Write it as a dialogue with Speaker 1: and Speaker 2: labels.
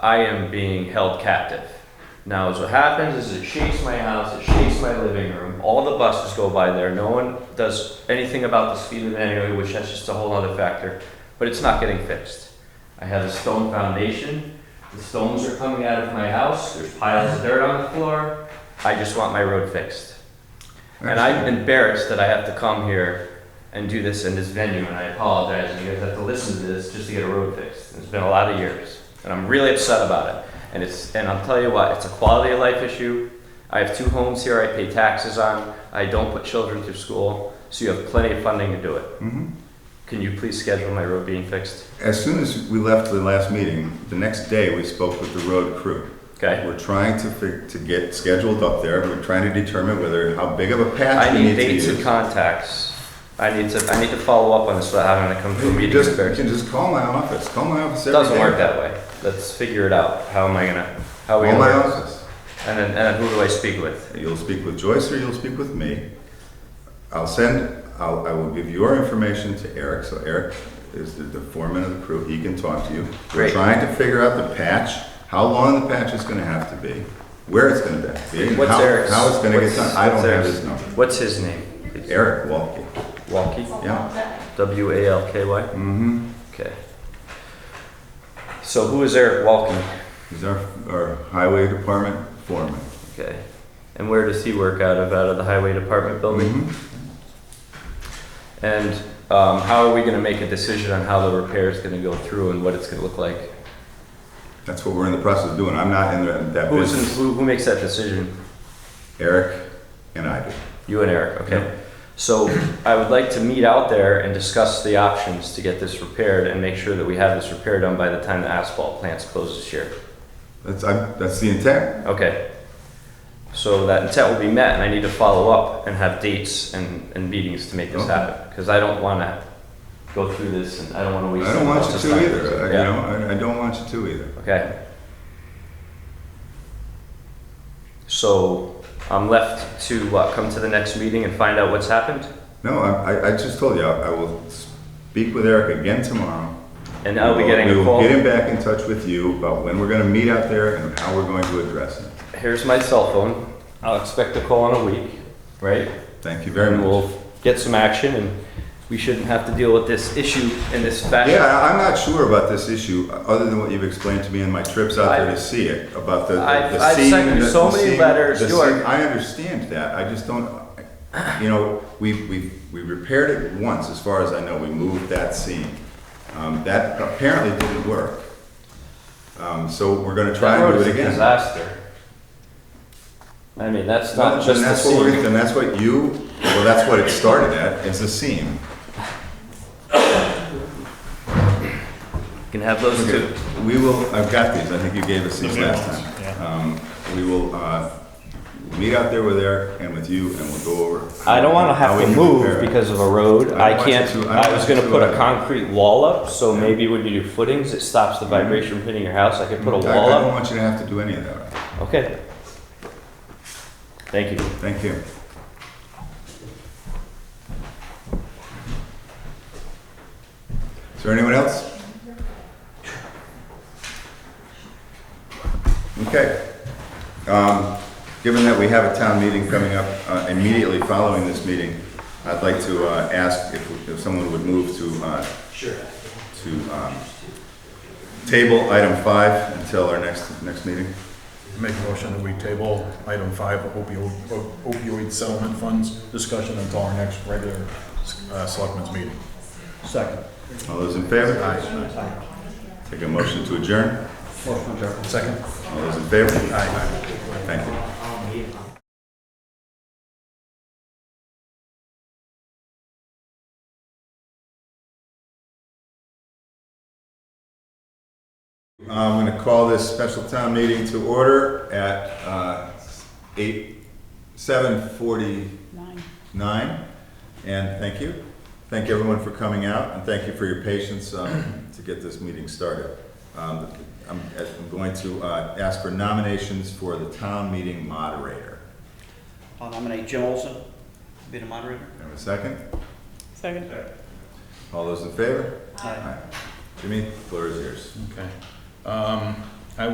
Speaker 1: I am being held captive. Now, as what happens is it shakes my house, it shakes my living room. All the buses go by there. No one does anything about the speed limit anyway, which that's just a whole other factor. But it's not getting fixed. I have a stone foundation. The stones are coming out of my house. There's piles of dirt on the floor. I just want my road fixed. And I'm embarrassed that I have to come here and do this in this venue, and I apologize, and you guys have to listen to this just to get a road fixed. It's been a lot of years, and I'm really upset about it. And it's, and I'll tell you what, it's a quality of life issue. I have two homes here I pay taxes on, I don't put children through school, so you have plenty of funding to do it.
Speaker 2: Mhm.
Speaker 1: Can you please schedule my road being fixed?
Speaker 2: As soon as we left the last meeting, the next day we spoke with the road crew.
Speaker 1: Okay?
Speaker 2: We're trying to fi- to get scheduled up there. We're trying to determine whether how big of a patch
Speaker 1: I
Speaker 2: we
Speaker 1: need
Speaker 2: need to
Speaker 1: dates
Speaker 2: use.
Speaker 1: and contacts. I need to, I need to follow up on this without having to come to a
Speaker 2: You
Speaker 1: meeting.
Speaker 2: just, you
Speaker 1: embarrassed.
Speaker 2: can just call my office. Call my office
Speaker 1: It
Speaker 2: every
Speaker 1: doesn't
Speaker 2: day.
Speaker 1: work that way. Let's figure it out. How am I gonna, how are we
Speaker 2: Call
Speaker 1: gonna
Speaker 2: my
Speaker 1: work?
Speaker 2: office.
Speaker 1: And then, and then who do I speak with?
Speaker 2: You'll speak with Joyce or you'll speak with me. I'll send, I'll, I will give your information to Eric, so Eric is the, the foreman of the crew, he can talk to you. We're
Speaker 1: Great.
Speaker 2: trying to figure out the patch, how long the patch is gonna have to be, where it's gonna be, and
Speaker 1: What's
Speaker 2: how,
Speaker 1: Eric's?
Speaker 2: how it's gonna get
Speaker 1: what's-
Speaker 2: done. I don't
Speaker 1: what's
Speaker 2: have
Speaker 1: Eric's-
Speaker 2: his number.
Speaker 1: What's his name?
Speaker 2: Eric Walkie,
Speaker 1: Walkie?
Speaker 2: yeah.
Speaker 1: W A L K Y?
Speaker 2: Mm-hmm.
Speaker 1: Okay. So who is Eric Walkie?
Speaker 2: He's our, our highway department foreman.
Speaker 1: Okay. And where does he work out of? Out of the highway department building?
Speaker 2: Mhm.
Speaker 1: And um, how are we gonna make a decision on how the repair is gonna go through and what it's gonna look like?
Speaker 2: That's what we're in the process of doing. I'm not in that, that
Speaker 1: Who's, in-
Speaker 2: business.
Speaker 1: who, who makes that decision?
Speaker 2: Eric and I do.
Speaker 1: You and Eric, okay?
Speaker 2: Yep.
Speaker 1: So I would like to meet out there and discuss the options to get this repaired and make sure that we have this repair done by the time the asphalt plants close this year.
Speaker 2: That's, I, that's the intent.
Speaker 1: Okay. So that intent will be met and I need to follow up and have dates and, and meetings to make this
Speaker 2: Okay.
Speaker 1: happen. Cause I don't wanna go through this and I don't wanna waste.
Speaker 2: I don't want you
Speaker 1: someone
Speaker 2: to
Speaker 1: else's time.
Speaker 2: either, I- you
Speaker 1: Yeah,
Speaker 2: know, I, I don't want you to either.
Speaker 1: okay. So I'm left to what, come to the next meeting and find out what's happened?
Speaker 2: No, I, I- I just told you, I I will speak with Eric again tomorrow.
Speaker 1: And I'll be getting
Speaker 2: We
Speaker 1: a
Speaker 2: will-
Speaker 1: call.
Speaker 2: We will get him back in touch with you about when we're gonna meet out there and how we're going to address it.
Speaker 1: Here's my cell phone. I'll expect a call in a week, right?
Speaker 2: Thank you very
Speaker 1: And
Speaker 2: much.
Speaker 1: we'll get some action and we shouldn't have to deal with this issue in this fashion.
Speaker 2: Yeah, I- I'm not sure about this issue, uh, other than what you've explained to me in my trips out there to see it, about the, the
Speaker 1: I've-
Speaker 2: the
Speaker 1: I've
Speaker 2: seam
Speaker 1: sent you
Speaker 2: and the-
Speaker 1: so
Speaker 2: the
Speaker 1: many
Speaker 2: seam-
Speaker 1: letters,
Speaker 2: the
Speaker 1: you are-
Speaker 2: seam- I understand that, I just don't, you know, we, we, we repaired it once, as far as I know, we moved that seam. Um, that apparently didn't work. Um, so we're gonna try
Speaker 1: That road
Speaker 2: and do
Speaker 1: is
Speaker 2: it
Speaker 1: a
Speaker 2: again.
Speaker 1: disaster. I mean, that's not
Speaker 2: And
Speaker 1: just the
Speaker 2: that's what we're,
Speaker 1: scene.
Speaker 2: and that's what you, well, that's what it started at, it's a seam.
Speaker 1: Can have those
Speaker 2: Okay,
Speaker 1: two.
Speaker 2: we will, I've got these, I think you gave us these last time. Um, We will, uh, meet out there with Eric and with you, and we'll go over.
Speaker 1: I don't wanna
Speaker 2: how
Speaker 1: have
Speaker 2: we
Speaker 1: to
Speaker 2: can
Speaker 1: move
Speaker 2: prepare.
Speaker 1: because of a road.
Speaker 2: I
Speaker 1: I
Speaker 2: don't want you
Speaker 1: can't,
Speaker 2: to- I don't
Speaker 1: I was
Speaker 2: want you
Speaker 1: gonna
Speaker 2: to uh,
Speaker 1: put a
Speaker 2: either.
Speaker 1: concrete wall up, so maybe when you do footings, it stops the vibration from hitting your house. I could put a
Speaker 2: Mm-hmm. I-
Speaker 1: wall
Speaker 2: I don't
Speaker 1: up.
Speaker 2: want you to have to do any of that,
Speaker 1: Okay. Thank you.
Speaker 2: thank you. Is there anyone else? Okay. Um, Given that we have a town meeting coming up uh, immediately following this meeting, I'd like to uh, ask if if someone would move to, uh, to um, table item five until our next, next meeting.
Speaker 3: Make a motion that we table item five opioid, opioid settlement funds discussion until our next regular uh, selectmen's meeting. Second.
Speaker 2: All those in favor? Take a motion to adjourn.
Speaker 3: Second?
Speaker 2: All those in favor? Aye. Thank you. I'm going to call this special town meeting to order at uh, eight, 7:49. And thank you. Thank everyone for coming out, and thank you for your patience um, to get this meeting started. Um, I'm I'm going to uh, ask for nominations for the town meeting moderator.
Speaker 4: I'll Uh, nominate Jim Olson to be the moderator.
Speaker 2: Have a second?
Speaker 5: Second.
Speaker 2: All those in favor?
Speaker 4: Aye.
Speaker 2: Jimmy, floor is yours.
Speaker 3: Okay. Um,